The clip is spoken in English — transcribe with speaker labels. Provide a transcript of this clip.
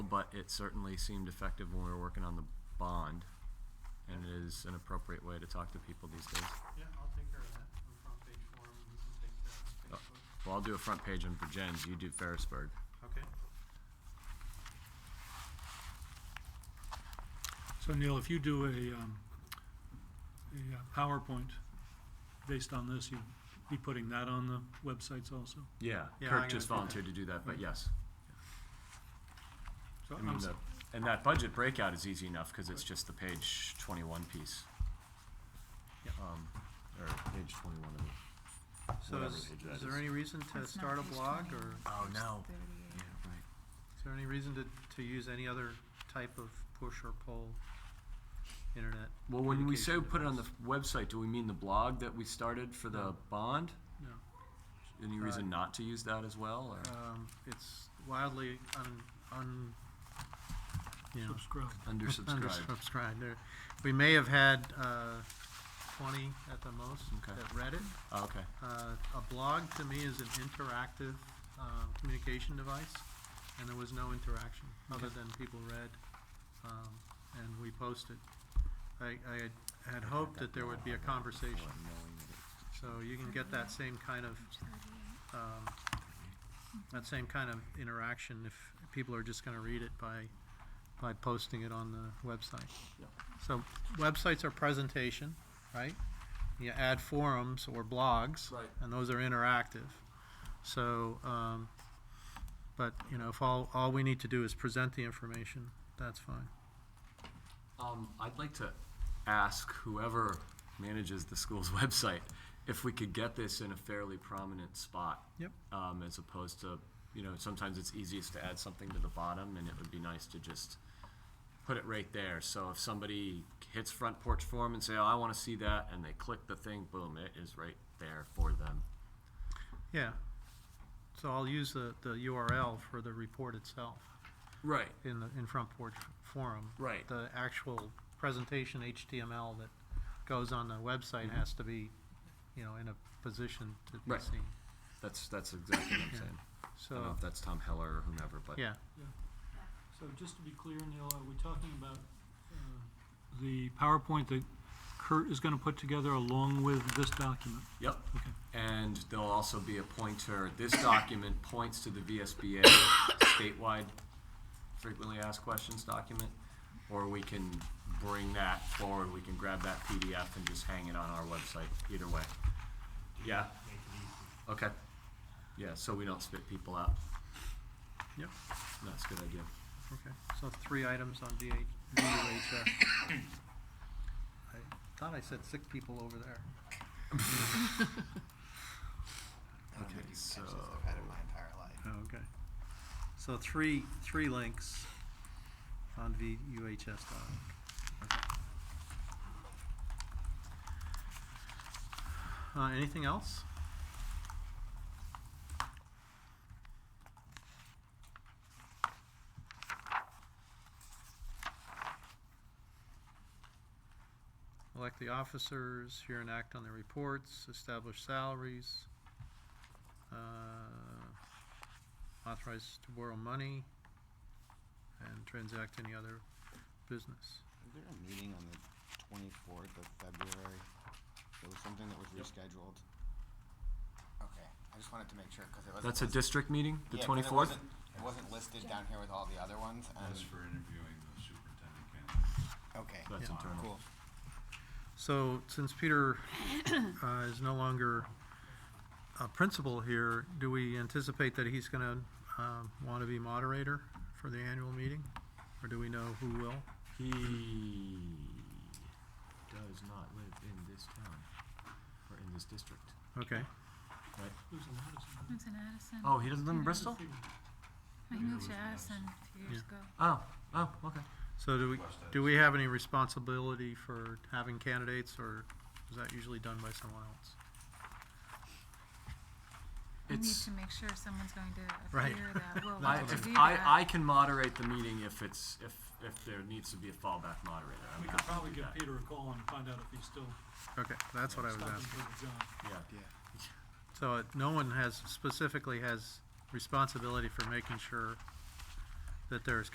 Speaker 1: it certainly seemed effective when we were working on the bond, and it is an appropriate way to talk to people these days.
Speaker 2: Yeah, I'll take care of that. On front page forum, you can take care of
Speaker 1: Uh,
Speaker 2: Facebook.
Speaker 1: Well, I'll do a front page on Virgins, you do Ferrisburg.
Speaker 2: Okay.
Speaker 3: So Neil, if you do a, um, a uh, PowerPoint based on this, you'd be putting that on the websites also?
Speaker 1: Yeah,
Speaker 2: Yeah, I'm
Speaker 1: Kirk
Speaker 2: gonna
Speaker 1: just
Speaker 2: do that.
Speaker 1: volunteered to do that, but yes.
Speaker 3: So
Speaker 1: I
Speaker 3: I'm
Speaker 1: mean,
Speaker 3: s-
Speaker 1: the, and that budget breakout is easy enough, cause it's just the page twenty-one piece.
Speaker 3: Yeah.
Speaker 1: Um, or page twenty-one of it.
Speaker 2: So
Speaker 1: Whatever
Speaker 2: is,
Speaker 1: page that
Speaker 2: is there
Speaker 1: is.
Speaker 2: any reason to
Speaker 4: That's not
Speaker 2: start a
Speaker 4: page
Speaker 2: blog
Speaker 4: 20.
Speaker 2: or
Speaker 1: Oh, no.
Speaker 4: Thirty-eight.
Speaker 1: right.
Speaker 2: is there any reason to, to use any other type of push or pull internet?
Speaker 1: Well, when we say
Speaker 2: Communication
Speaker 1: put it on the
Speaker 2: device.
Speaker 1: f- website, do we mean the blog that we started for the
Speaker 2: No.
Speaker 1: bond?
Speaker 3: no.
Speaker 1: Any
Speaker 2: Uh,
Speaker 1: reason not to use that as well, or
Speaker 2: Um, it's wildly un, un, you know,
Speaker 3: Subscribe.
Speaker 1: undersubscribed?
Speaker 2: Undersubscribed. There, we may have had uh, twenty at the most
Speaker 1: Okay.
Speaker 2: that read it.
Speaker 1: Oh, okay.
Speaker 2: Uh, a blog to me is an interactive um, communication device, and there was no interaction other
Speaker 1: Okay.
Speaker 2: than people read um, and we posted. I, I had- had hoped that there would be a conversation, so you can get that same kind of
Speaker 4: Page thirty-eight.
Speaker 2: um, that same kind of interaction if people are just gonna read it by, by posting it on the website.
Speaker 1: Yep.
Speaker 2: So websites are presentation, right? You add forums or blogs.
Speaker 1: Right.
Speaker 2: And those are interactive. So, um, but, you know, if all, all we need to do is present the information, that's fine.
Speaker 1: Um, I'd like to ask whoever manages the school's website if we could get this in a fairly prominent spot.
Speaker 2: Yep.
Speaker 1: Um, as opposed to, you know, sometimes it's easiest to add something to the bottom and it would be nice to just put it right there. So if somebody hits front porch forum and say, oh, I wanna see that, and they click the thing, boom, it is right there for them.
Speaker 2: Yeah. So I'll use the, the URL for the report itself
Speaker 1: Right,
Speaker 2: in the, in Front Porch Forum.
Speaker 1: right.
Speaker 2: the actual presentation HTML that goes on the website
Speaker 1: Mhm.
Speaker 2: has to be, you know, in a position to be
Speaker 1: Right.
Speaker 2: seen.
Speaker 1: That's, that's exactly what I'm
Speaker 2: Yeah.
Speaker 1: saying. I don't know
Speaker 2: So,
Speaker 1: if that's Tom Heller or whomever, but.
Speaker 2: yeah,
Speaker 5: So just to be clear, Neil, are we talking about, uh,
Speaker 3: The PowerPoint that Kurt is gonna put together along with this document.
Speaker 1: Yep.
Speaker 3: Okay.
Speaker 1: And there'll also be a pointer, this document points to the VSBA statewide frequently asked questions document. Or we can bring that forward, we can grab that PDF and just hang it on our website, either way. Yeah? Okay. Yeah, so we don't spit people out.
Speaker 2: Yep.
Speaker 1: That's a good idea.
Speaker 2: okay. So three items on VH, VUHF. I thought I said six people over there.
Speaker 1: Okay, so.
Speaker 2: Oh, okay. So three, three links on VUHS.org. Uh, anything else? Elect the officers, hear and act on the reports, establish salaries. Uh, authorized to borrow money and transact any other business.
Speaker 6: Is there a meeting on the twenty-fourth of February? There was something that was rescheduled? Okay, I just wanted to make sure, cause it wasn't.
Speaker 1: That's a
Speaker 6: lis-
Speaker 1: district meeting, the
Speaker 6: Yeah, 'cause it
Speaker 1: twenty-fourth?
Speaker 6: wasn't- It wasn't listed down here with all the other ones, and,
Speaker 7: That's for interviewing the superintendent candidates.
Speaker 6: okay,
Speaker 1: That's
Speaker 2: Yeah.
Speaker 1: internal.
Speaker 6: cool.
Speaker 2: So since Peter uh, is no longer a principal here, do we anticipate that he's going to want to be moderator for the annual meeting? Or do we know who will?
Speaker 1: He does not live in this town or in this district.
Speaker 2: Okay,
Speaker 5: who's in Madison?
Speaker 4: It's in Addison.
Speaker 1: Oh, he doesn't live in Bristol?
Speaker 4: I moved to Addison a few years ago.
Speaker 1: Oh, oh, okay.
Speaker 2: so do we, do we have any responsibility for having candidates or is that usually done by someone else?
Speaker 4: We need
Speaker 1: It's-
Speaker 4: to make sure someone's going to
Speaker 2: Right.
Speaker 4: appear that will
Speaker 1: I,
Speaker 4: want to
Speaker 1: if
Speaker 4: do
Speaker 1: I,
Speaker 4: that.
Speaker 1: I can moderate the meeting if it's, if, if there needs to be a fallback moderator. I'm
Speaker 5: We
Speaker 1: happy
Speaker 5: could
Speaker 1: to
Speaker 5: probably
Speaker 1: do
Speaker 5: give
Speaker 1: that.
Speaker 5: Peter a call and find out if he's still
Speaker 2: Okay, that's what I was
Speaker 5: stopping
Speaker 2: asking.
Speaker 5: for the job.
Speaker 1: Yeah.
Speaker 2: So it- no one has, specifically has responsibility for making sure that there's